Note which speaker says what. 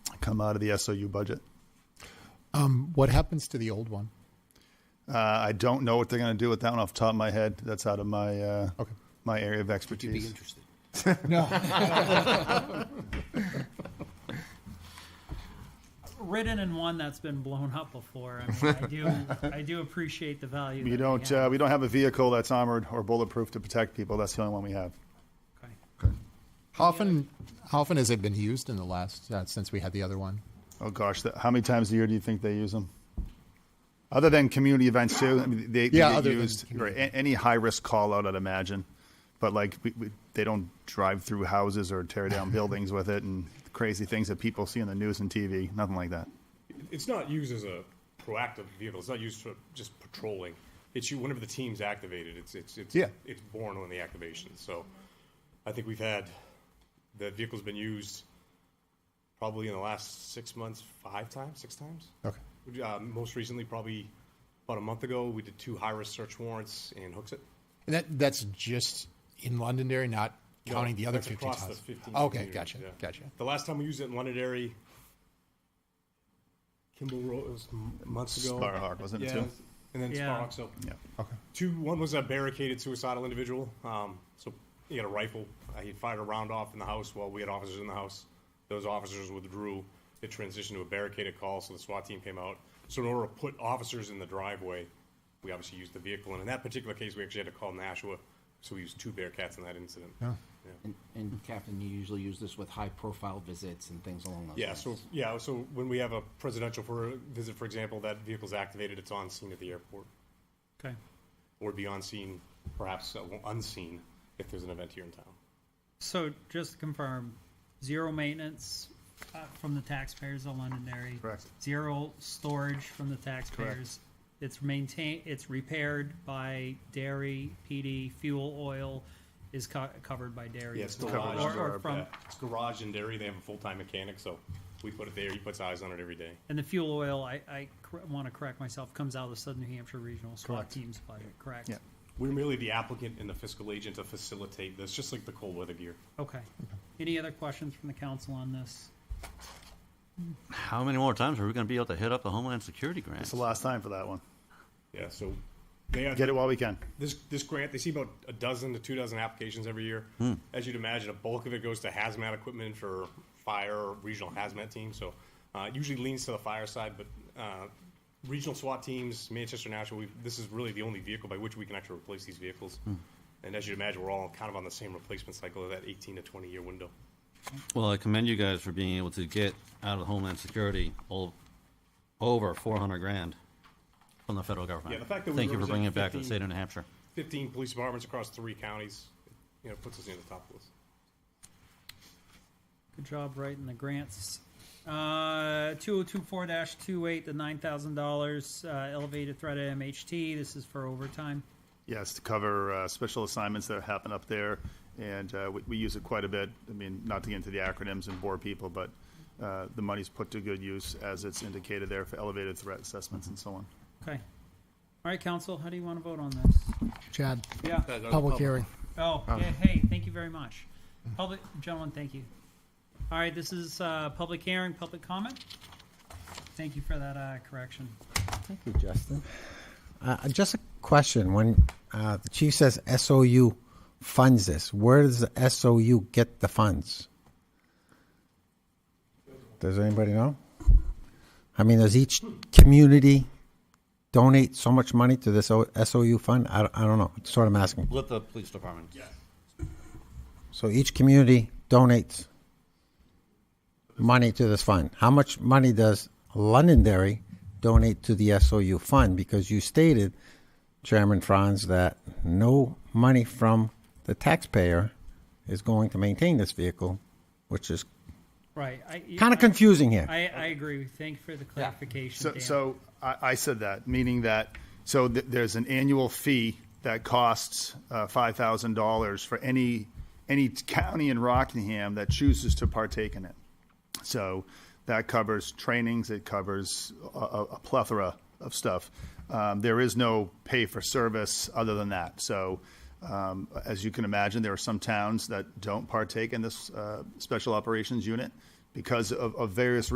Speaker 1: come out of the SOU budget.
Speaker 2: Um, what happens to the old one?
Speaker 1: Uh, I don't know what they're going to do with that one off the top of my head. That's out of my uh,
Speaker 2: Okay.
Speaker 1: my area of
Speaker 3: You'd be
Speaker 1: expertise.
Speaker 3: interested.
Speaker 4: Written in one that's been blown up before. I mean, I do, I do appreciate the value.
Speaker 1: We
Speaker 4: that they
Speaker 1: don't
Speaker 4: have.
Speaker 1: uh, we don't have a vehicle that's armored or bulletproof to protect people. That's the only one we have.
Speaker 4: Okay.
Speaker 2: How often, how often has it been used in the last uh, since we had the other one?
Speaker 1: Oh gosh, that, how many times a year do you think they use them? Other than community events too, I mean, they, they
Speaker 2: Yeah,
Speaker 1: get
Speaker 2: other than
Speaker 1: used right,
Speaker 2: community.
Speaker 1: a- any high risk call out, I'd imagine. But like, we, we, they don't drive through houses or tear down buildings with it, and crazy things that people see on the news and TV. Nothing like that.
Speaker 5: It's not used as a proactive vehicle. It's not used for just patrolling. It's you whenever the team's activated. It's it's it's
Speaker 1: Yeah.
Speaker 5: it's born on the activation. So I think we've had the vehicle's been used probably in the last six months five times, six times.
Speaker 2: Okay.
Speaker 5: We, Uh, most recently, probably about a month ago, we did two high risk search warrants and hooks it.
Speaker 2: And that that's just in Londonderry, not counting the other
Speaker 5: That's
Speaker 2: fifteen
Speaker 5: across the
Speaker 2: towns.
Speaker 5: 15
Speaker 2: okay,
Speaker 5: communities,
Speaker 2: gotcha,
Speaker 5: yeah.
Speaker 2: gotcha.
Speaker 5: The last time we used it in Londonderry, Kimball Road was m- months ago.
Speaker 1: Sparhawk, wasn't it,
Speaker 5: Yeah,
Speaker 1: too?
Speaker 5: And then
Speaker 4: Yeah.
Speaker 5: Sparhawk. So
Speaker 1: Yeah.
Speaker 2: Okay.
Speaker 5: two. One was a barricaded suicidal individual. Um, so he had a rifle. Uh, he fired a round off in the house while we had officers in the house. Those officers withdrew. It transitioned to a barricaded call, so the SWAT team came out. So in order to put officers in the driveway, we obviously used the vehicle. And in that particular case, we actually had to call Nashua, so we used two Bearcats in that incident. Yeah.
Speaker 3: And, and Captain, you usually use this with high-profile visits and things along those lines.
Speaker 5: Yeah, so, yeah, so when we have a presidential for, visit, for example, that vehicle's activated, it's on scene at the airport,
Speaker 4: Okay.
Speaker 5: or be on scene, perhaps uh, unseen, if there's an event here in town.
Speaker 4: So just to confirm, zero maintenance uh, from the taxpayers of Londonderry.
Speaker 1: Correct.
Speaker 4: Zero storage from the taxpayers. It's maintained, it's repaired by dairy, PD, fuel, oil is co- covered by dairy.
Speaker 5: Yeah, it's
Speaker 4: Or-
Speaker 5: garage.
Speaker 4: Or from,
Speaker 5: yeah, it's garage and dairy, they have a full-time mechanic, so we put it there, he puts eyes on it every day.
Speaker 4: and the fuel oil, I, I want to correct myself, comes out of the Southern New Hampshire Regional SWAT Teams budget, correct?
Speaker 1: Yeah.
Speaker 5: We're merely the applicant and the fiscal agent to facilitate this, just like the cold weather gear.
Speaker 4: Okay. Any other questions from the council on this?
Speaker 6: How many more times are we going to be able to hit up the Homeland Security grant?
Speaker 1: It's the last time for that one.
Speaker 5: Yeah, so they are,
Speaker 1: Get it while we can.
Speaker 5: this, this grant, they see about a dozen to two dozen applications every year. As you'd imagine, a bulk of it goes to hazmat equipment for fire, or regional hazmat teams. So uh, it usually leans to the fire side, but uh, regional SWAT teams, Manchester National, we, this is really the only vehicle by which we can actually replace these vehicles. And as you'd imagine, we're all kind of on the same replacement cycle of that 18 to 20 year window.
Speaker 6: Well, I commend you guys for being able to get out of Homeland Security all, over 400 grand from the federal government.
Speaker 5: Yeah, the fact that we
Speaker 6: Thank you for
Speaker 5: represent
Speaker 6: bringing it back to the
Speaker 5: 15
Speaker 6: state of New Hampshire.
Speaker 5: 15 police departments across three counties, you know, puts us near the top of the list.
Speaker 4: Good job writing the grants. Uh, 2024-28, the $9,000 uh, elevated threat at MHT. This is for overtime.
Speaker 1: Yes, to cover uh, special assignments that happen up there, and uh, we, we use it quite a bit. I mean, not to get into the acronyms and bore people, but uh, the money's put to good use as it's indicated there for elevated threat assessments and so on.
Speaker 4: Okay. All right, council, how do you want to vote on this?
Speaker 7: Chad,
Speaker 4: Yeah.
Speaker 7: public hearing.
Speaker 4: Oh, yeah, hey, thank you very much. Public, gentlemen, thank you. All right, this is uh, public hearing, public comment. Thank you for that uh, correction.
Speaker 7: Thank you, Justin. Uh, just a question. When uh, the chief says SOU funds this, where does the SOU get the funds? Does anybody know? I mean, does each community donate so much money to this O- SOU fund? I, don't- I don't know. That's what I'm asking.
Speaker 6: Let the police department.
Speaker 7: So each community donates money to this fund. How much money does Londonderry donate to the SOU fund? Because you stated, Chairman Franz, that no money from the taxpayer is going to maintain this vehicle, which is
Speaker 4: Right. I-
Speaker 7: kind of confusing here.
Speaker 4: I, I agree. Thank you for the clarification,
Speaker 1: So,
Speaker 4: Dan.
Speaker 1: so I, I said that, meaning that, so th- there's an annual fee that costs uh, $5,000 for any, any county in Rockingham that chooses to partake in it. So that covers trainings, it covers a, a a plethora of stuff. Um, there is no pay for service other than that. So, um, as you can imagine, there are some towns that don't partake in this uh, special operations unit because of, of various